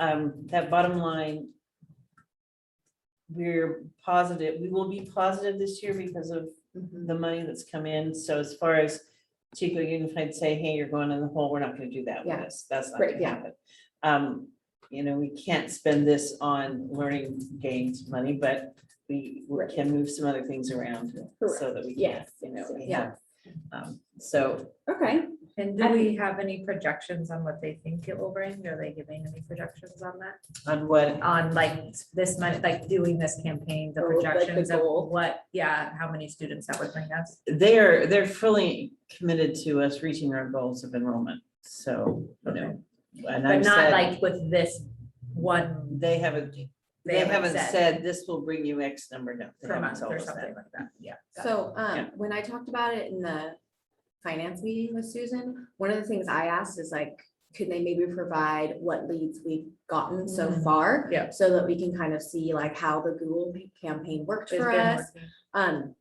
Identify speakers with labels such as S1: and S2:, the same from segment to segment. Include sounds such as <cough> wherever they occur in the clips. S1: um, that bottom line. We're positive, we will be positive this year because of
S2: Mm-hmm.
S1: the money that's come in. So as far as Chico Unified say, hey, you're going in the hole, we're not gonna do that with
S2: Yeah.
S1: this. That's not
S2: Right,
S1: gonna
S2: yeah.
S1: happen. Um, you know, we can't spend this on learning gains money, but we we
S2: Right.
S1: can move some other things around so
S2: Correct.
S1: that we. can,
S2: Yes,
S1: You know, we
S2: yeah.
S1: have, um, so
S2: Okay,
S3: And do we have any projections on what they think it will bring? Are they giving any projections on that?
S1: on what,
S3: On like this money, like doing this campaign, the
S2: Or like the
S3: projections of
S2: goal.
S3: what, yeah, how many students that would bring us?
S1: they're, they're fully committed to us reaching our goals of enrollment, so, you know. and
S3: But
S1: I've
S3: not
S1: said-
S3: like with this one.
S1: They haven't, they haven't said this will bring you X number, no. they
S3: Per
S1: haven't
S3: month
S1: told
S3: or
S1: us that.
S3: something like that, yeah. got it.
S2: so
S1: Yeah.
S2: um, when I talked about it in the finance meeting with Susan, one of the things I asked is like, could they maybe provide what leads we've gotten so
S3: Mhm.
S2: far?
S3: Yeah.
S2: So that we can kind of see like how the Google campaign worked
S3: It's
S2: for
S3: been
S2: us.
S3: working.
S2: Um,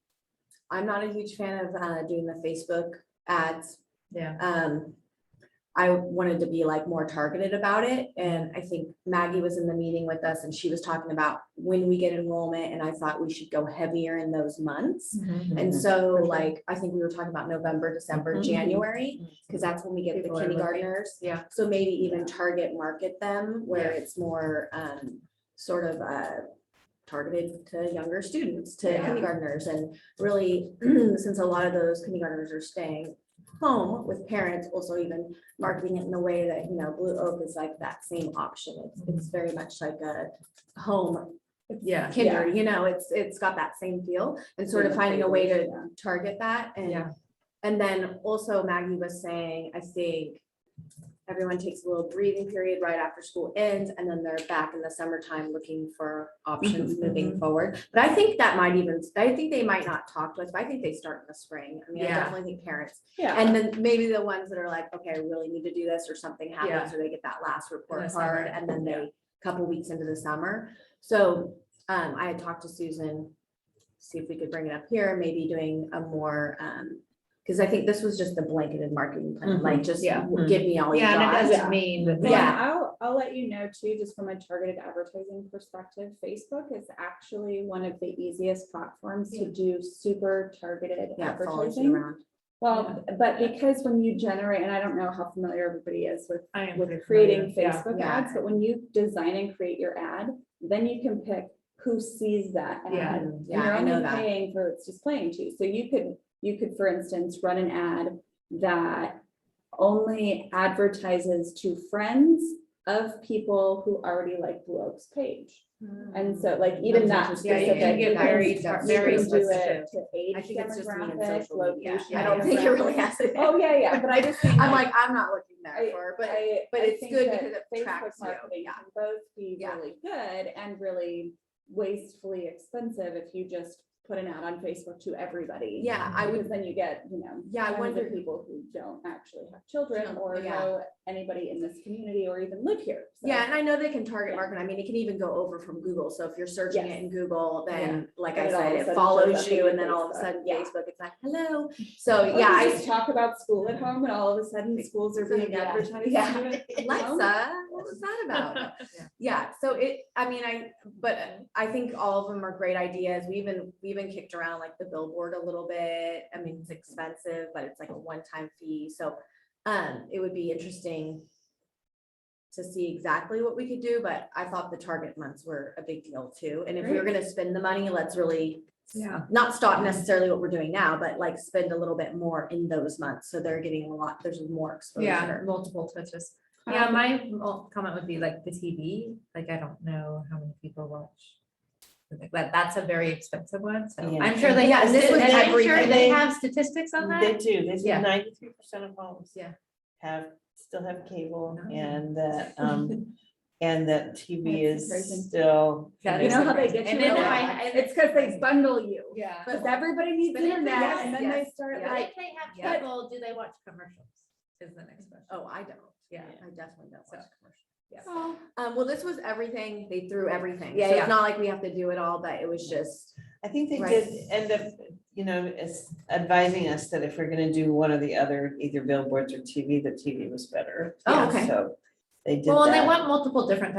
S2: I'm not a huge fan of uh doing the Facebook ads
S3: Yeah,
S2: um, I wanted to be like more targeted about it. And I think Maggie was in the meeting with us and she was talking about when we get enrollment and I thought we should go heavier in those months. And so
S3: Mm-hmm. For sure. Mm-hmm.
S2: like, I think we were talking about November, December,
S1: Mhm.
S2: January, because that's when we get the
S3: People are looking.
S2: kindergartners.
S3: yeah.
S2: So maybe even target market them where
S3: Yeah.
S2: it's more, um, sort of, uh, targeted to younger students, to
S3: Yeah.
S2: kindergartners and really, <clears throat> since a lot of those kindergartners are staying home with parents, also even marketing it in a way that, you know, Blue Oak is like that same option. It's,
S3: Mm-hmm.
S2: it's very much like a home
S3: Yeah.
S2: kinder, you know, it's, it's got that same feel and sort of finding a way to target that and
S3: Yeah.
S2: and then also Maggie was saying, I think everyone takes a little breathing period right after school ends and then they're back in the summertime looking for options
S3: Mm-hmm.
S2: moving forward. But I think that might even, I think they might not talk to us, but I think they start in the spring. I mean, I
S3: Yeah.
S2: definitely think parents.
S3: Yeah.
S2: And then maybe the ones that are like, okay, I really need to do this or something happens or they get that last
S3: In
S2: report
S3: the summer,
S2: card and then
S3: yeah.
S2: they, couple weeks into the summer. So um, I had talked to Susan, see if we could bring it up here, maybe doing a more um, because I think this was just the blanketed marketing plan, like just
S3: Yeah.
S2: w- give me all you
S3: Yeah, and it
S2: got.
S3: doesn't mean that. they-
S2: Yeah.
S4: Yeah, I'll, I'll let you know too, just from a targeted advertising perspective, Facebook is actually one of the easiest platforms to do super targeted
S2: Yeah, it follows you
S4: advertising.
S2: around.
S4: Well, but because when you generate, and I don't know how familiar everybody is with,
S3: I am pretty
S4: with creating
S3: familiar, yeah.
S4: Facebook
S2: Yeah.
S4: ads, but when you design and create your ad, then you can pick who sees that
S3: Yeah.
S4: ad. And
S2: Mm, Yeah,
S4: you're
S2: I know
S4: only
S2: that.
S4: paying for its displaying to. So you could, you could, for instance, run an ad that only advertises to friends of people who already like Blue Oak's page. And so like even that
S2: Mm-hmm. That's interesting.
S3: Yeah, you
S4: specific.
S3: can get
S4: you can-
S3: very
S4: you
S3: tar-
S4: can
S3: very
S4: do it
S3: specific.
S4: To
S2: I
S4: age
S2: think it's just me and
S4: demographic,
S2: social media.
S4: location.
S2: I don't think it really has. it.
S4: Oh, yeah, yeah, but I just. think,
S2: <laughs> I'm like, I'm not looking that
S4: I-
S2: far, but
S4: I-
S2: but
S4: I
S2: it's
S4: think
S2: good
S4: that
S2: because it
S4: Facebook
S2: tracks you,
S4: marketing
S2: yeah.
S4: can Both be
S2: Yeah.
S4: really good and really wastefully expensive if you just put an ad on Facebook to everybody.
S2: yeah, I would,
S4: Because then you get, you know.
S2: Yeah, I
S4: tons of
S2: wonder-
S4: People who don't actually have children
S2: Don't-
S4: or
S2: yeah.
S4: know anybody in this community or even live here. so.
S2: yeah, and I know they can target market. I mean, it can even go over from Google. So if you're searching it
S4: Yes.
S2: in Google, then like I
S4: Then it all of
S2: said,
S4: a
S2: it
S4: sudden shows
S2: follows
S4: up in
S2: you
S4: your
S2: and then all of a
S4: Facebook,
S2: sudden
S4: yeah.
S2: Facebook, it's like,
S4: <laughs>
S2: hello. So
S4: Or
S2: oh, yeah,
S4: you
S2: I
S4: just talk about school at home and all of a sudden schools are being
S2: Yeah.
S4: advertised. oh
S2: Yeah.
S4: <laughs> to, you know?
S2: <laughs> Alexa, what was
S4: <laughs>
S2: that
S4: Oh
S2: about?
S3: Yeah.
S2: Yeah, so it, I mean, I, but I think all of them are great ideas. We even, we even kicked around like the billboard a little bit. I mean, it's expensive, but it's like a one-time fee, so um, it would be interesting to see exactly what we could do, but I thought the target months were a big deal too. And if we were gonna spend the money, let's really
S3: <laughs> Yeah.
S2: not stop necessarily what we're doing now, but like spend a little bit more in those months, so they're getting a lot, there's more
S3: Yeah,
S2: exposure.
S3: multiple touches. Yeah, my mo- comment would be like the TV, like I don't know how many people watch. But that's a very expensive one, so
S1: Yeah.
S3: I'm sure they,
S2: Yeah,
S3: and
S2: and this was
S3: I'm sure they
S2: everything.
S3: have statistics on
S1: They
S3: that.
S1: do, they
S3: Yeah.
S1: say ninety-three percent of homes.
S3: Yeah.
S1: Have, still have cable
S3: Oh.
S1: and that, um, and that TV
S4: That's
S1: is
S4: surprising.
S1: still.
S3: That
S4: You
S3: is
S4: know how they get
S3: And
S4: you?
S3: then
S4: with
S3: I-
S4: that?
S3: I-
S4: It's because they bundle you.
S3: Yeah.
S4: Because everybody needs
S3: But if they-
S4: internet and then they
S2: yes,
S4: start
S3: But
S4: like,
S3: if they have
S4: Yeah.
S3: cable, do they watch commercials? Is the next question.
S2: Oh, I don't.
S3: Yeah.
S2: I definitely don't
S3: So-
S2: watch commercials.
S4: oh,
S2: Um, well, this was everything, they threw everything, so
S3: Yeah, yeah.
S2: it's not like we have to do it all, but it was just,
S1: I think they
S2: Right.
S1: did end up, you know, as advising us that if we're gonna do one or the other, either billboards or TV, the TV was better.
S2: Oh, okay.
S1: So they did
S3: Well, and they
S1: that.
S3: want multiple different types